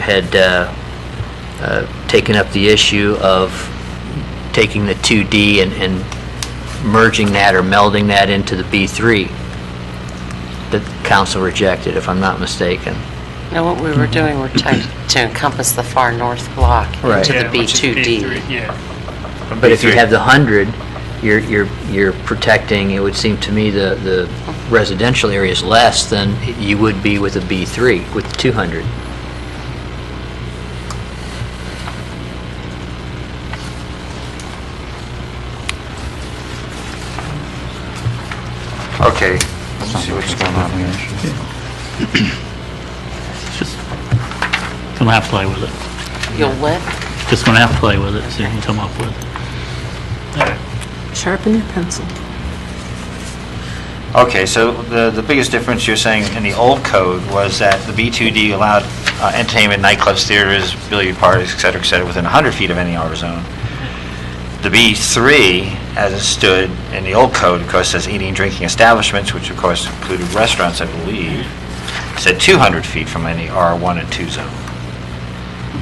had uh, uh, taken up the issue of taking the 2D and- and merging that or melding that into the B3 that council rejected, if I'm not mistaken. No, what we were doing, we're trying to encompass the far north block Right. into the Yeah, which is B2D. B3, Yeah. But if you have the 100, you're, you're, you're protecting, it would seem to me, the, the residential areas less than you would be with a B3, with 200. Okay, let's see what's going on here. Just gonna have to play with it. You'll what? Just gonna have to play with it, see what you come up with. Sharpen your pencil. Okay, so the, the biggest difference you're saying in the old code was that the B2D allowed uh, entertainment, nightclubs, theaters, billiard parties, et cetera, et cetera, within 100 feet of any R zone. The B3, as it stood in the old code, of course, says eating, drinking establishments, which of course included restaurants, I believe, said 200 feet from any R1 and 2 zone.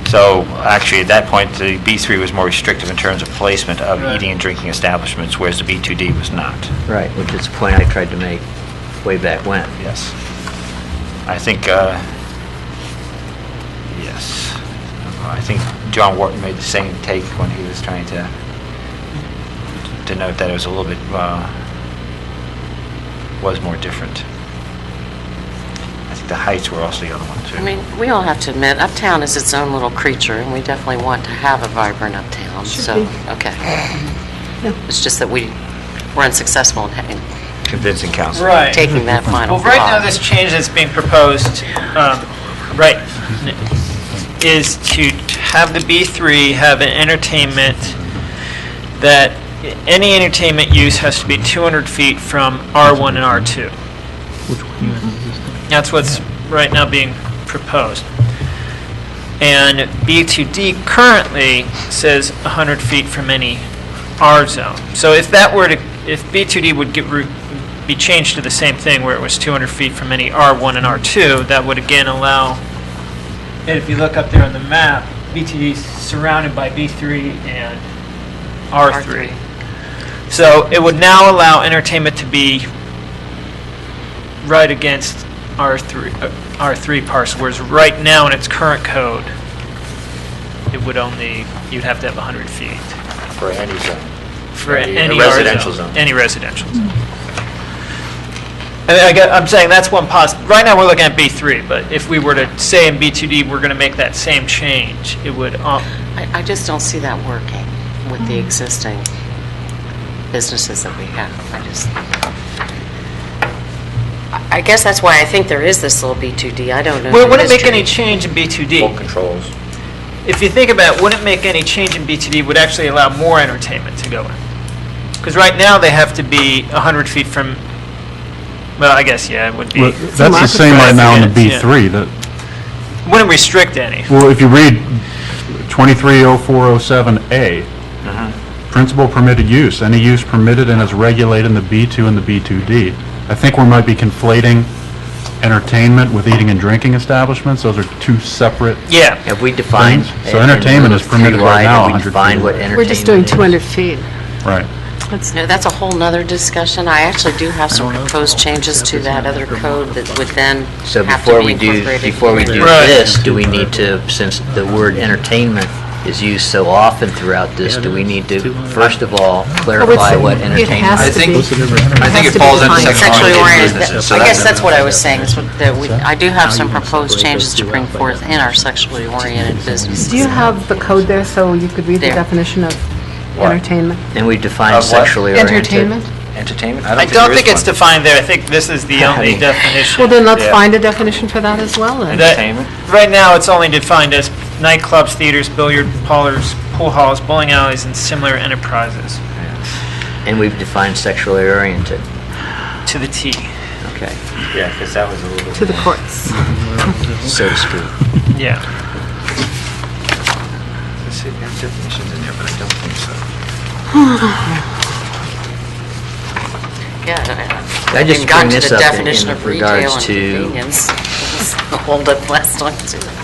So actually, at that point, the B3 was more restrictive in terms of placement of Right. eating and drinking establishments, whereas the B2D was not. Right. Which is the point I tried to make way back when. Yes. I think, uh, yes. I think John Wharton made the same take when he was trying to denote that it was a little bit, uh, was more different. I think the heights were also the other one, too. I mean, we all have to admit, Uptown is its own little creature, and we definitely want to have a vibrant Uptown, Should so, be. okay. It's just that we were unsuccessful in in Convincing counsel. Right. taking that final Well, block. right now, this change that's being proposed, um, right, is to have the B3 have an entertainment that any entertainment use has to be 200 feet from R1 and R2. That's what's right now being proposed. And B2D currently says 100 feet from any R zone. So if that were to, if B2D would get, re- be changed to the same thing where it was 200 feet from any R1 and R2, that would again allow, and if you look up there on the map, B2D is surrounded by B3 and R3. So it would now allow entertainment to be right against R3, uh, R3 parcel, whereas right now in its current code, it would only, you'd have to have 100 feet For any zone. for Any- a any. residential R zone. Any residential zone. I mean, I gue- I'm saying that's one poss, right now, we're looking at B3, but if we were to say in B2D, we're going to make that same change, it would, um, I, I just don't see that working with Mm. the existing businesses that we have. I just, I- I guess that's why I think there is this little B2D. I don't know. well, it the wouldn't make history. any change in B2D. controls. if you think about it, wouldn't make any change in BTD, would actually allow more entertainment to go in. Because right now, they have to be 100 feet from, well, I guess, yeah, it would be. Well, That's the same right now in the B3, that, Wouldn't restrict any. well, if you read 230407A, principal permitted use, any use permitted and is regulated in the B2 and the B2D. I think we might be conflating entertainment with eating and drinking establishments, those are two separate, Yeah. Have we defined? So entertainment is permitted right Have now, we 100 feet defined what away. entertainment We're just doing is? 200 feet. right. That's No, that's a whole nother discussion. I actually do have some proposed changes to that other code that would then So have before to be we do, incorporated. before we do Right. this, do we need to, since the word entertainment is used so often throughout this, do we need to, first of all, clarify what It entertainment has to is? be. think- I think Has it to be falls into defined. sexually Sexually oriented, oriented that- businesses. so I guess an that's what I was entertainment. saying, is what- that we, I do have some proposed changes to bring forth in our sexually oriented businesses. Do you have the code there so you could read the There. definition of What? entertainment? And we define Of what? sexually oriented. Entertainment? Entertainment? I don't think it's the defined there. I think this is the only mean- definition. Well, then let's Yeah. find a definition for that as well. then. That- Entertainment? Right now, it's only defined as nightclubs, theaters, billiard parlors, pool halls, bowling alleys, and similar enterprises, And we've defined sexually oriented. to the T. Okay, Yeah, because that was a little bit... To the courts. so to speak. Yeah. Let's see, there are definitions in there, but I don't think so. Yeah. I just We've gotten bring to this the up in- definition in of retail regards and to- convenience. Hold up last time, too.